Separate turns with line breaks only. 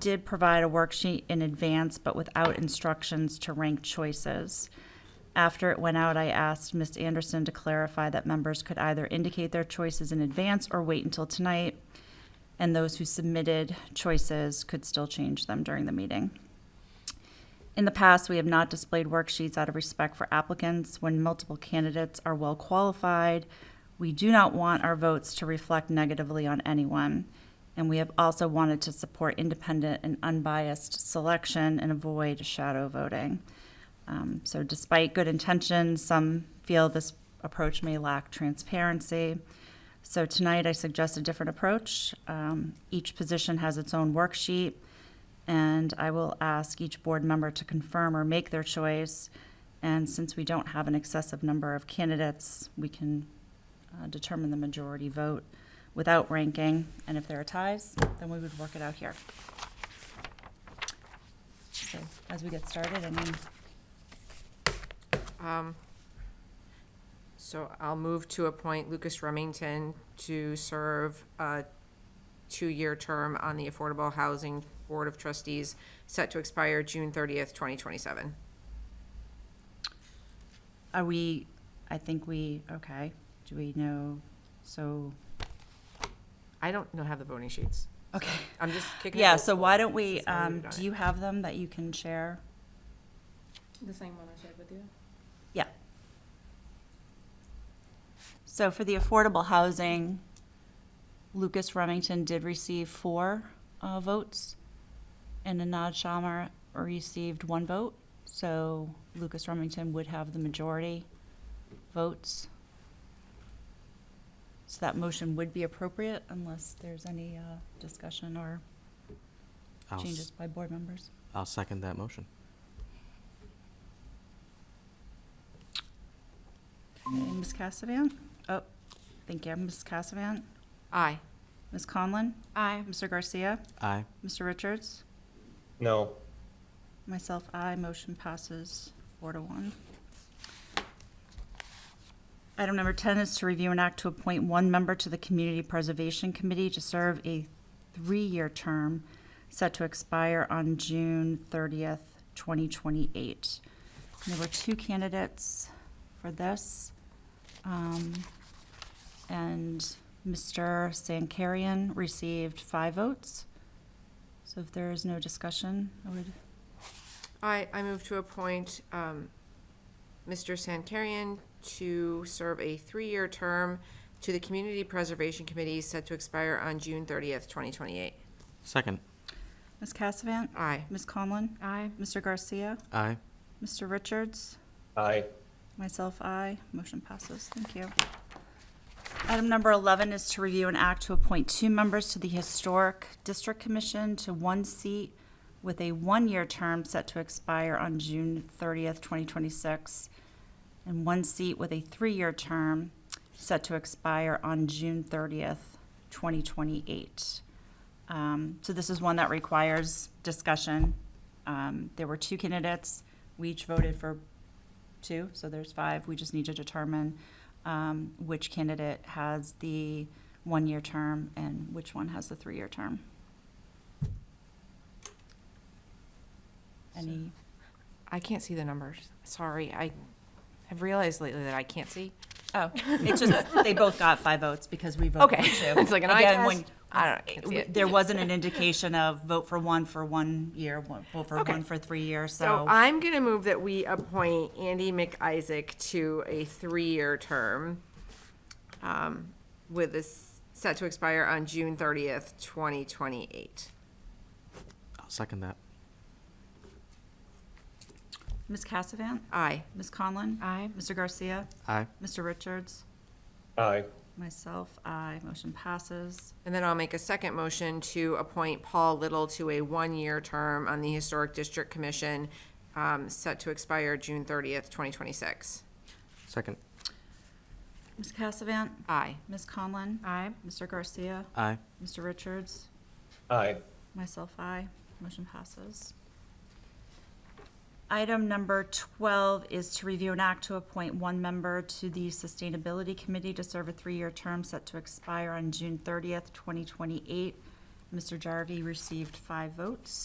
did provide a worksheet in advance, but without instructions to rank choices. After it went out, I asked Ms. Anderson to clarify that members could either indicate their choices in advance or wait until tonight, and those who submitted choices could still change them during the meeting. In the past, we have not displayed worksheets out of respect for applicants when multiple candidates are well qualified. We do not want our votes to reflect negatively on anyone. And we have also wanted to support independent and unbiased selection and avoid shadow voting. Um, so despite good intentions, some feel this approach may lack transparency. So tonight, I suggest a different approach. Um, each position has its own worksheet. And I will ask each board member to confirm or make their choice. And since we don't have an excessive number of candidates, we can uh, determine the majority vote without ranking. And if there are ties, then we would work it out here. So as we get started, I mean,
Um, So I'll move to appoint Lucas Remington to serve a two-year term on the Affordable Housing Board of Trustees, set to expire June thirtieth, twenty twenty-seven.
are we, I think we, okay, do we know, so,
I don't know, have the voting sheets.
okay.
I'm just kicking. it
Yeah,
old
so
school.
why don't we,
This is how
um,
we've done
do
it.
you have them that you can share?
The same one I shared with you?
So for the affordable housing, Lucas Remington did receive four uh, votes, and Anad Shamar received one vote. So Lucas Remington would have the majority votes. So that motion would be appropriate unless there's any uh, discussion or
I'll, s-
changes by board members.
I'll second that motion.
Okay, Ms. Cassavant? Oh, thank you. Ms. Cassavant?
Aye.
Ms. Conlon?
Aye.
Mr. Garcia?
Aye.
Mr. Richards?
No,
Myself, aye. Motion passes four to one. Item number 10 is to review and act to appoint one member to the Community Preservation Committee to serve a three-year term set to expire on June 30th, 2028. There were two candidates for this. um, And Mr. Sankarian received five votes. So if there is no discussion, I would
I, I move to appoint um, Mr. Santarian to serve a three-year term to the Community Preservation Committee, set to expire on June thirtieth, twenty twenty-eight.
Second.
Ms. Cassavant?
Aye.
Ms. Conlon?
Aye.
Mr. Garcia?
Aye.
Mr. Richards?
aye.
Myself, aye. Motion passes. Thank you. Item number 11 is to review an act to appoint two members to the Historic District Commission to one seat with a one-year term set to expire on June 30th, 2026, and one seat with a three-year term set to expire on June 30th, 2028. Um, So this is one that requires discussion. Um, There were two candidates. We each voted for two, so there's five. We just need to determine um, which candidate has the one-year term and which one has the three-year term. Any,
I can't see the numbers. Sorry, I have realized lately that I can't see.
oh, it's just, they both got five votes because we voted for
Okay.
two.
It's like an eye
Again,
test.
when-
I don't know, I can't see it.
There wasn't an indication of vote for one for one year, one- vote for
Okay.
one for three years,
So uh,
so.
I'm gonna move that we appoint Andy McIsaac to a three-year term um, with this, set to expire on June thirtieth, twenty twenty-eight.
I'll second that.
Ms. Cassavant?
Aye.
Ms. Conlon?
Aye.
Mr. Garcia?
Aye.
Mr. Richards?
Aye.
Myself, aye. Motion passes.
And then I'll make a second motion to appoint Paul Little to a one-year term on the Historic District Commission, um, set to expire June thirtieth, twenty twenty-six.
Second.
Ms. Cassavant?
Aye.
Ms. Conlon?
Aye.
Mr. Garcia?
Aye.
Mr. Richards?
Aye.
Myself, aye. Motion passes. Item number 12 is to review an act to appoint one member to the Sustainability Committee to serve a three-year term set to expire on June 30th, 2028, Mr. Jarvie received five votes.